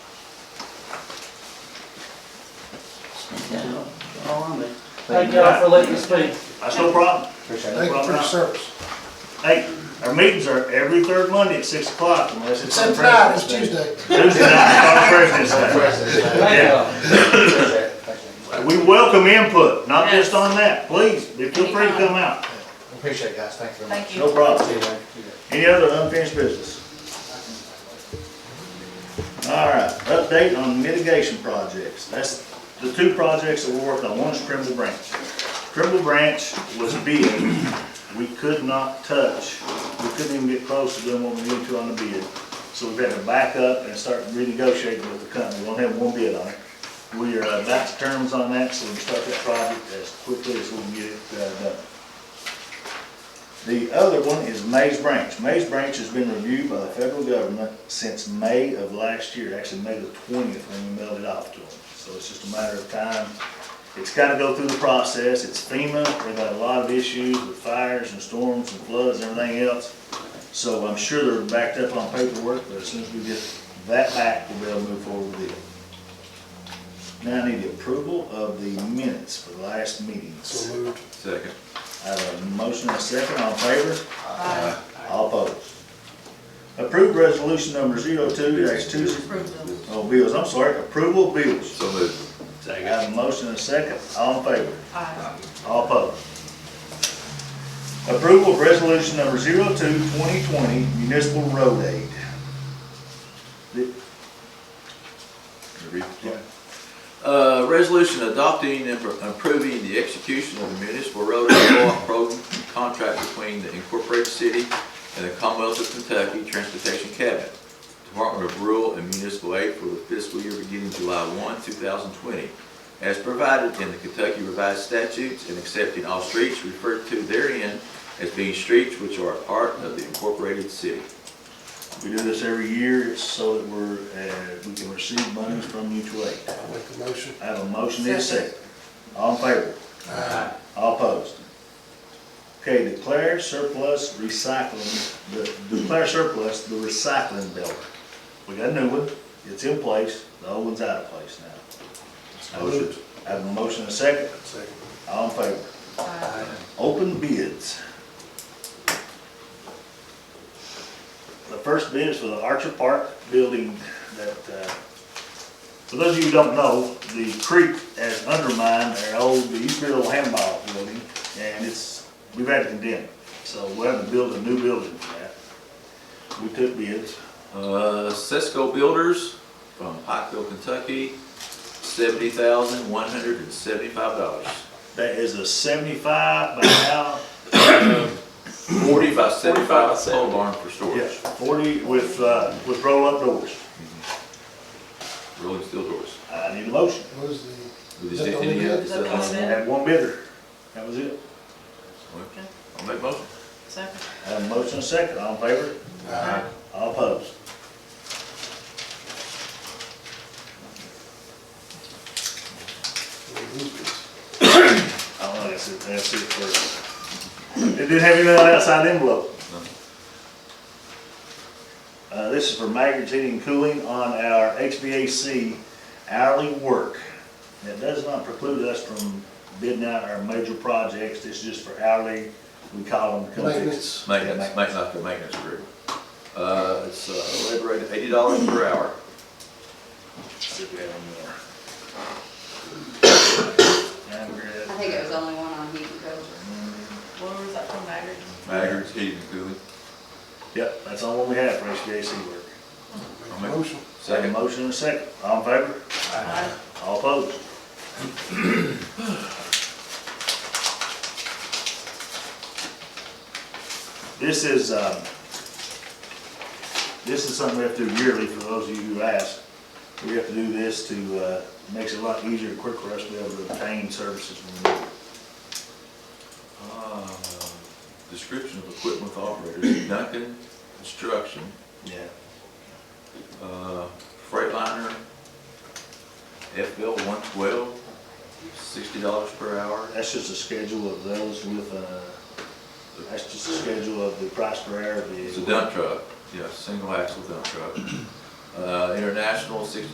on it. Thank Thank y'all you. for letting us speak. That's no problem. Appreciate it. Thank you for your service. Hey, our meetings are every third Monday at six o'clock. Unless it's on Since now, it's President's Day. Tuesday. Tuesday night, our President's On Day. President's Day. Thank Yeah. y'all. Appreciate it. Thank We welcome input, not just on that, please, feel free to come out. you. Appreciate it, guys. Thank you very much. Thank No you. problem. See you later. You bet. Any other unfinished business? All right, update on mitigation projects. That's the two projects that we're working on. One's Trimble Branch. Trimble Branch was bid. We could not touch, we couldn't even get close to doing what we needed to on the bid. So we've had to back up and start renegotiating with the company. We only have one bid on it. We are uh, back to terms on that, so we can start that project as quickly as we can get it uh, done. The other one is Maze Branch. Maze Branch has been reviewed by the federal government since May of last year, actually May the twentieth when we mailed it off to them. So it's just a matter of time. It's gotta go through the process. It's FEMA. They've had a lot of issues with fires and storms and floods and everything else. So I'm sure they're backed up on paperwork, but as soon as we get that back, we'll be able to move forward with it. Now I need the approval of the minutes for the last meetings. So moved. Second. I have a motion and a second. All in favor? Aye. All opposed. Approved resolution number 02 two, Approve those. oh, bills, I'm sorry, approval of bills. So moved. I have a motion and a second, all in favor, Aye. all opposed. Approval of resolution number 02 2020 municipal road aid. Did- Read the yeah. plan. Uh, resolution adopting and appro- approving the execution of the municipal road and co-op program contract between the Incorporated City and the Commonwealth of Kentucky Transportation Cabinet, Department of Rural and Municipal Aid for the fiscal year beginning July one, two thousand twenty, as provided in the Kentucky Revised Statutes and accepting all streets referred to therein as being streets which are a part of the Incorporated City. We do this every year, it's so that we're, uh, we can receive monies from mutual aid. I'll make the motion. I have a motion and a Second. second. All in favor? Aye. All opposed? Okay, declare surplus recycling, the- declare surplus the recycling building. We got a new one, it's in place, the old one's out of place now. Motion. I have a motion and a second, Second. all in favor? Aye. Open bids. The first bid is for the Archer Park building that, uh, for those of you who don't know, the creek has undermined their old, the used to be an old handball building, and it's, we've had to condemn it. So we're having to build a new building for that. We took bids. Uh, Cisco Builders from Pikeville, Kentucky, seventy thousand, one hundred and seventy-five dollars. That is a seventy-five by now, Forty by seventy-five pole barn for yeah, storage, forty with, uh, with roll-up doors. rolling steel doors. I need a motion. What is the, Is that it- the any only other- bid? is that the That's only I it. one? had one bidder. That was it. Okay. I'll make motion. Second. I Have a motion and a second, all in favor, Uh-huh. Aye. all opposed. We'll move it. I don't know, that's it, that's it for, it didn't have anything outside the envelope. Uh, this is for Maggard's Heating and Cooling on our HVAC hourly work. That does not preclude us from bidding out our major projects, it's just for hourly, we call them. to come fix. Maintenance. Maintenance, maintenance, like the maintenance agreement. Uh, it's, uh, labor rate eighty dollars per hour. See if we have any more. I think it was only one on heat and culture. Where was that from, Maggard? Maggard's heating and cooling. Yep, that's all we have for HVAC work. Make I'll the make- motion. Have a Second. motion and a second, all in favor? Uh-huh. Aye. All opposed? This is, um, this is something we have to do yearly for those of you who ask. We have to do this to, uh, makes it a lot easier and quicker for us to be able to obtain services when we need. Uh, Description of equipment with operators, Duncan Construction, it. Yeah. Uh, Freightliner, FL one twelve, sixty dollars per hour. That's just a schedule of those with, uh, that's just a schedule of the price per hour of the. It's a dump truck, yeah, single axle dump truck. Uh, International, sixty